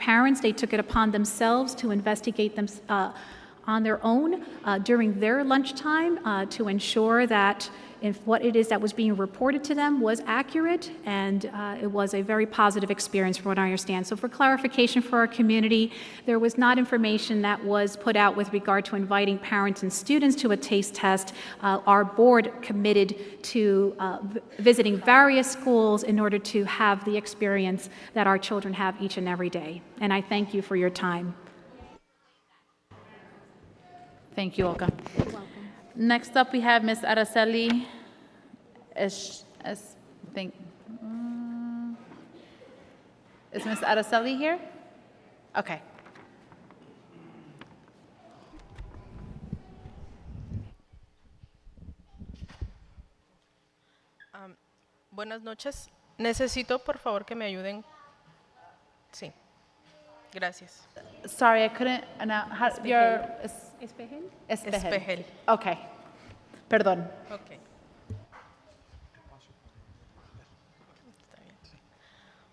parents, they took it upon themselves to investigate them uh, on their own uh, during their lunchtime uh, to ensure that if what it is that was being reported to them was accurate, and uh, it was a very positive experience from what I understand. So for clarification for our community, there was not information that was put out with regard to inviting parents and students to a taste test. Uh, Our board committed to uh, v- visiting various schools in order to have the experience that our children have each and every day. And I thank you for your time. Thank you, Olga. Next up, we have Ms. Araceli Es, Es, think, mm, is Ms. Araceli here? Okay. Buenas noches. Necesito, por favor, que me ayuden. Sí. Gracias. Sorry, I couldn't, announce- how, your, Es- Espejel. Espejel. Okay. Perdón. Ok. Está bien.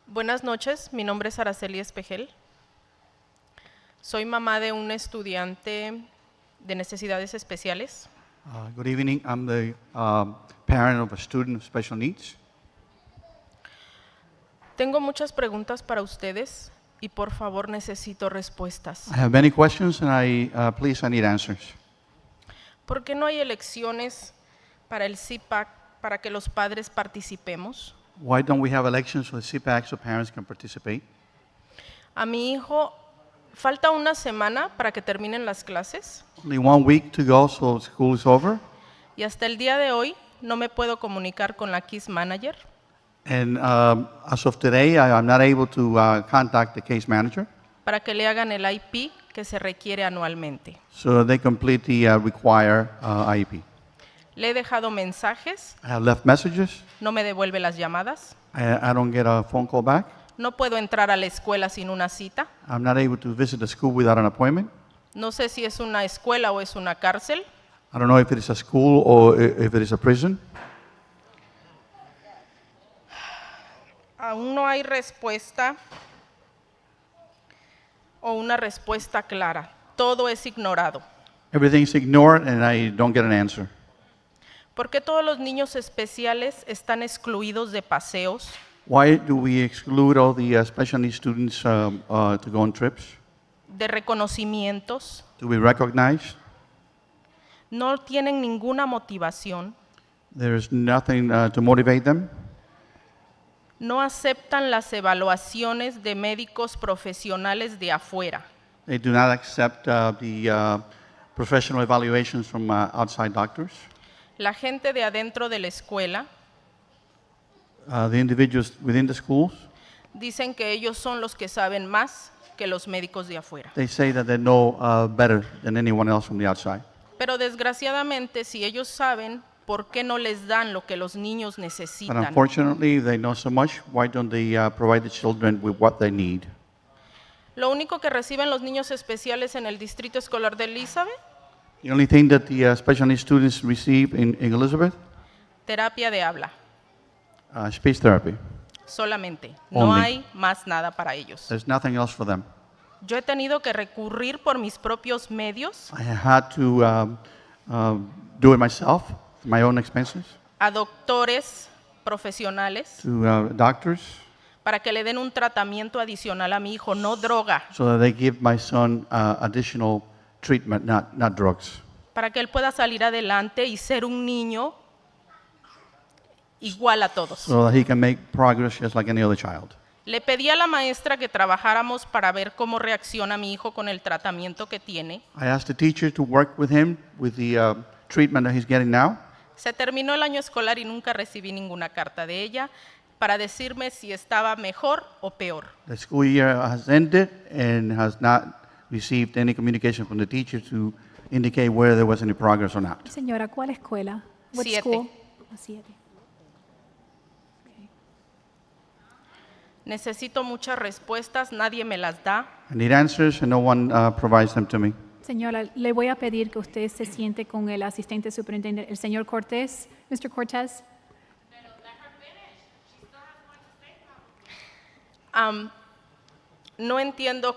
Buenas noches. Mi nombre es Araceli Espejel. Soy mamá de un estudiante de necesidades especiales. Uh, Good evening. I'm the um, parent of a student with special needs. Tengo muchas preguntas para ustedes y por favor necesito respuestas. I have many questions, and I uh, please I need answers. ¿Por qué no hay elecciones para el CIPAC para que los padres participemos? Why don't we have elections for the CPAC so parents can participate? A mi hijo falta una semana para que terminen las clases Only one week to go, so school is over, y hasta el día de hoy no me puedo comunicar con la KISS Manager. and um, as of today, I am not able to uh, contact the case manager, para que le hagan el IP que se requiere anualmente. so they complete the uh, require uh, IEP. Le he dejado mensajes, I have left messages. no me devuelve las llamadas, I, I don't get a phone call back. no puedo entrar a la escuela sin una cita, I'm not able to visit the school without an appointment. no sé si es una escuela o es una cárcel, I don't know if it is a school or i- if it is a prison. aún no hay respuesta o una respuesta clara, todo es ignorado. Everything's ignored and I don't get an answer. ¿Por qué todos los niños especiales están excluidos de paseos, Why do we exclude all the uh, special needs students um, uh, to go on trips? de reconocimientos? Do we recognize? No tienen ninguna motivación, There is nothing uh, to motivate them. no aceptan las evaluaciones de médicos profesionales de afuera, They do not accept uh, the uh, professional evaluations from uh, outside doctors. la gente de adentro de la escuela. Uh, the individuals within the schools, Dicen que ellos son los que saben más que los médicos de afuera. they say that they know uh, better than anyone else from the outside. Pero desgraciadamente, si ellos saben, ¿por qué no les dan lo que los niños But necesitan? unfortunately, they know so much. Why don't they uh, provide the children with what they need? Lo único que reciben los niños especiales en el distrito escolar de Elizabeth, The only thing that the uh, special needs students receive in, in Elizabeth, terapia de habla. uh, speech therapy. Solamente. No Only. hay más nada para ellos. There's nothing else for them. Yo he tenido que recurrir por mis propios medios I had to um, um, do it myself, my own expenses, a doctores profesionales to uh, doctors, para que le den un tratamiento adicional a mi hijo, no droga, so that they give my son uh, additional treatment, not, not drugs, para que él pueda salir adelante y ser un niño igual a todos. so that he can make progress just like any other child. Le pedí a la maestra que trabajáramos para ver cómo reacciona mi hijo con el tratamiento que tiene. I asked the teacher to work with him with the uh, treatment that he's getting now. Se terminó el año escolar y nunca recibí ninguna carta de ella para decirme si estaba mejor o peor. The school year has ended and has not received any communication from the teacher to indicate whether there was any progress or not. Señora, ¿cuál escuela? Ah, What Siete. school? Necesito muchas respuestas, nadie me las da. I need answers, and no one uh, provides them to me. Señora, le voy a pedir que usted se siente con el asistente superintendente, el señor Cortés. Mr. Cortés. Am, No entiendo